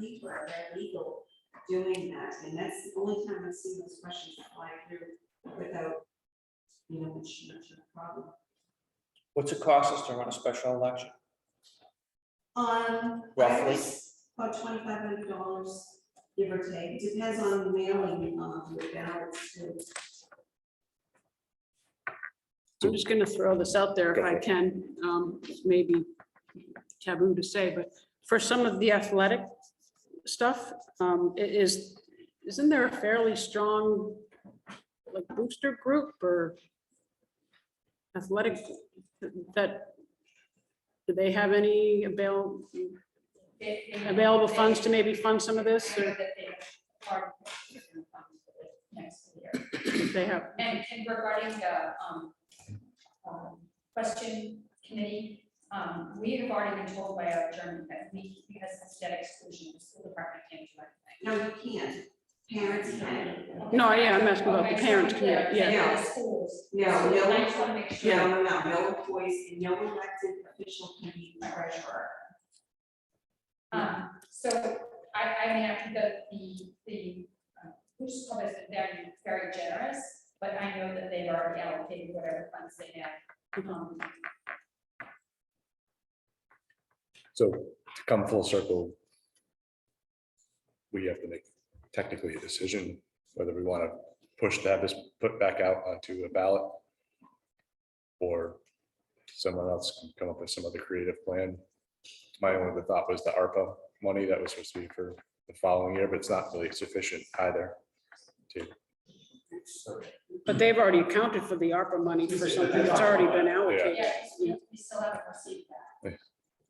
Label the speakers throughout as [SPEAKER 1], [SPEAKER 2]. [SPEAKER 1] people are very legal doing that, and that's the only time I've seen those questions fly through without, you know, much, much of a problem.
[SPEAKER 2] What's it cost us to run a special election?
[SPEAKER 1] Um, I
[SPEAKER 2] Roughly.
[SPEAKER 1] was about twenty-five hundred dollars, give or take, depends on the mailing, um, the balance too.
[SPEAKER 3] I'm just gonna throw this out there if I can, um, it's maybe taboo to say, but for some of the athletic stuff, um, it is, isn't there a fairly strong like booster group or athletic that, do they have any avail, available funds to maybe fund some of this? Or
[SPEAKER 4] Next year.
[SPEAKER 3] if they have,
[SPEAKER 4] And, and regarding the, um, um, question committee, um, we have already been told by our attorney that we, because of debt exclusion, the school department can't do anything.
[SPEAKER 1] No, you can't, parents can,
[SPEAKER 3] no, yeah, I'm asking about
[SPEAKER 4] Okay,
[SPEAKER 3] the
[SPEAKER 4] so
[SPEAKER 3] parents,
[SPEAKER 4] I'm clear,
[SPEAKER 3] yeah, yeah.
[SPEAKER 4] that
[SPEAKER 1] yeah.
[SPEAKER 4] the Schools.
[SPEAKER 1] No,
[SPEAKER 4] So
[SPEAKER 1] no.
[SPEAKER 4] I just wanna make sure.
[SPEAKER 1] no, no, no, no employees and no elected official can be treasurer.
[SPEAKER 4] Um, so I, I mean, I think that the, the, uh, we just call this very, very generous, but I know that they've already allocated whatever funds they have. Um,
[SPEAKER 5] So to come full circle, we have to make technically a decision whether we want to push to have this put back out onto a ballot or someone else can come up with some other creative plan. My only other thought was the ARPA money that was supposed to be for the following year, but it's not really sufficient either.
[SPEAKER 3] But they've already accounted for the ARPA money for something that's already been allocated.
[SPEAKER 4] yeah, we we still haven't received that.
[SPEAKER 5] Yeah.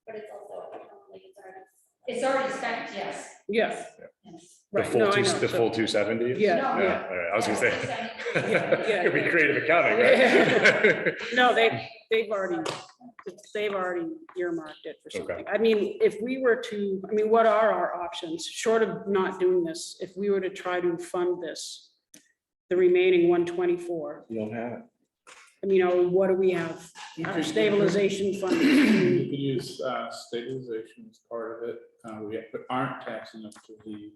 [SPEAKER 4] But it's also, it's already. It's already spent, yes.
[SPEAKER 3] Yeah,
[SPEAKER 4] yes.
[SPEAKER 5] The
[SPEAKER 3] right. No,
[SPEAKER 5] full
[SPEAKER 3] I
[SPEAKER 5] two,
[SPEAKER 3] know.
[SPEAKER 5] the
[SPEAKER 3] So-
[SPEAKER 5] full two seventy?
[SPEAKER 3] Yeah,
[SPEAKER 4] No,
[SPEAKER 5] Yeah, all right, I was gonna say.
[SPEAKER 4] Yeah.
[SPEAKER 5] It'd be creative accounting, right?
[SPEAKER 3] No, they, they've already, they've already earmarked it for something. I mean, if we were to, I mean, what are our options, short of not doing this, if we were to try to fund this? The remaining one twenty-four,
[SPEAKER 6] You don't have it.
[SPEAKER 3] I mean, you know, what do we have?
[SPEAKER 6] You
[SPEAKER 3] Our
[SPEAKER 6] could-
[SPEAKER 3] stabilization
[SPEAKER 6] You
[SPEAKER 3] fund,
[SPEAKER 6] could use uh, stabilization as part of it, uh, we but aren't taxing up to the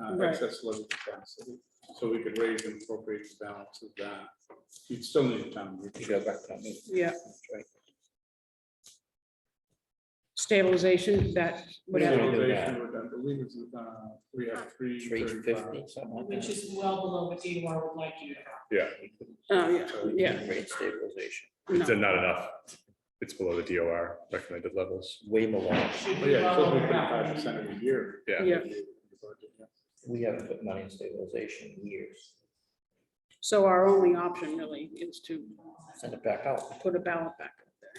[SPEAKER 6] uh,
[SPEAKER 3] Right.
[SPEAKER 6] excess levy capacity. So we could raise and appropriate the balance of that. You'd still need time. You go back to that.
[SPEAKER 3] yeah. Stabilization, that, whatever,
[SPEAKER 6] Stabilization would, I believe, is, uh, we have three.
[SPEAKER 7] Three fifty,
[SPEAKER 6] 35.
[SPEAKER 7] something like
[SPEAKER 8] Which
[SPEAKER 7] that.
[SPEAKER 8] is well below what DOR would like you to have.
[SPEAKER 5] Yeah,
[SPEAKER 3] oh, yeah, yeah.
[SPEAKER 7] Rate stabilization,
[SPEAKER 3] no.
[SPEAKER 5] it's not enough. It's below the DOR recommended levels.
[SPEAKER 7] way below.
[SPEAKER 8] Should
[SPEAKER 6] But
[SPEAKER 8] be
[SPEAKER 6] Oh, Yeah, it's
[SPEAKER 8] well
[SPEAKER 6] supposed to be
[SPEAKER 8] over half.
[SPEAKER 6] five percent of a year.
[SPEAKER 5] Yeah.
[SPEAKER 3] Yeah.
[SPEAKER 7] We haven't put money in stabilization in years.
[SPEAKER 3] So our only option really is to
[SPEAKER 7] Send it back out.
[SPEAKER 3] put a ballot back up there.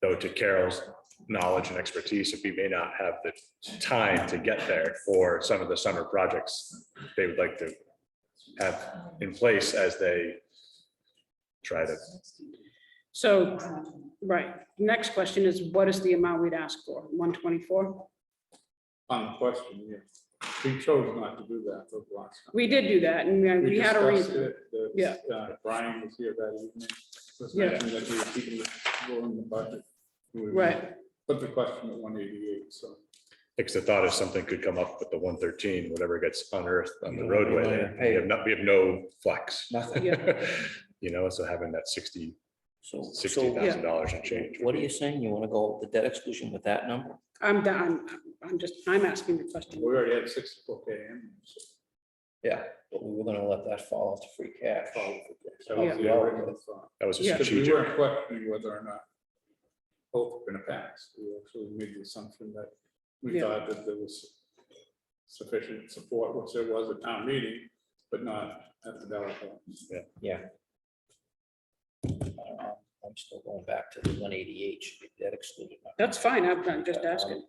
[SPEAKER 5] Though to Carol's knowledge and expertise, if we may not have the time to get there for some of the summer projects, they would like to have in place as they try to,
[SPEAKER 3] So, right, next question is what is the amount we'd ask for? One twenty-four?
[SPEAKER 6] On the question, yeah. We chose not to do that for the last. time.
[SPEAKER 3] We did do that and uh, we had a
[SPEAKER 6] discussed
[SPEAKER 3] reason.
[SPEAKER 6] it, that,
[SPEAKER 3] Yeah.
[SPEAKER 6] uh, Brian was here that evening. was
[SPEAKER 3] Yeah.
[SPEAKER 6] mentioning that we were keeping it low in the budget. We were
[SPEAKER 3] Right.
[SPEAKER 6] Put the question at one eighty-eight, so.
[SPEAKER 5] because the thought is something could come up with the one thirteen, whatever gets unearthed on the roadway there. We have not, we have no flex.
[SPEAKER 7] Nothing.
[SPEAKER 5] You know, so having that sixty,
[SPEAKER 7] So,
[SPEAKER 5] sixty
[SPEAKER 7] so
[SPEAKER 5] thousand dollars and change. would
[SPEAKER 7] what are
[SPEAKER 5] be-
[SPEAKER 7] you saying? You want to go the debt exclusion with that number?
[SPEAKER 3] I'm done. I'm just, I'm asking the
[SPEAKER 6] We
[SPEAKER 3] question.
[SPEAKER 6] already had sixty-four K in. so
[SPEAKER 7] Yeah, but we were going to let that fall to free cash.
[SPEAKER 6] that was
[SPEAKER 3] Yeah.
[SPEAKER 6] the original thought.
[SPEAKER 5] That was a
[SPEAKER 3] Yeah.
[SPEAKER 6] Because we
[SPEAKER 5] strategic.
[SPEAKER 6] weren't questioning whether or not both were gonna pass. We actually made the assumption that we
[SPEAKER 3] Yeah.
[SPEAKER 6] thought that there was sufficient support, which there was at town meeting, but not at the ballot. box.
[SPEAKER 7] I'm still going back to the one eighty-eight should be debt exclusion. number.
[SPEAKER 3] That's fine. I'm I'm just asking.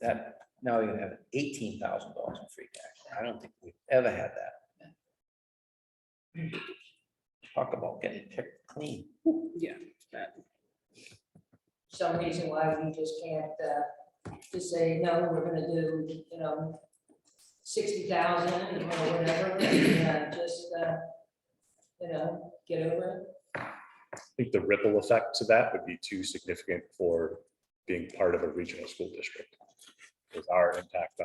[SPEAKER 7] That, now you have eighteen thousand dollars in free cash. I don't think we've ever had that. Talk about getting picked clean.
[SPEAKER 3] Yeah, that-
[SPEAKER 8] some reason why we just can't, uh, just say, no, we're gonna do, you know, sixty thousand or whatever, and uh, just, uh, you know, get over it.
[SPEAKER 5] I think the ripple effects of that would be too significant for being part of a regional school district. With our impact on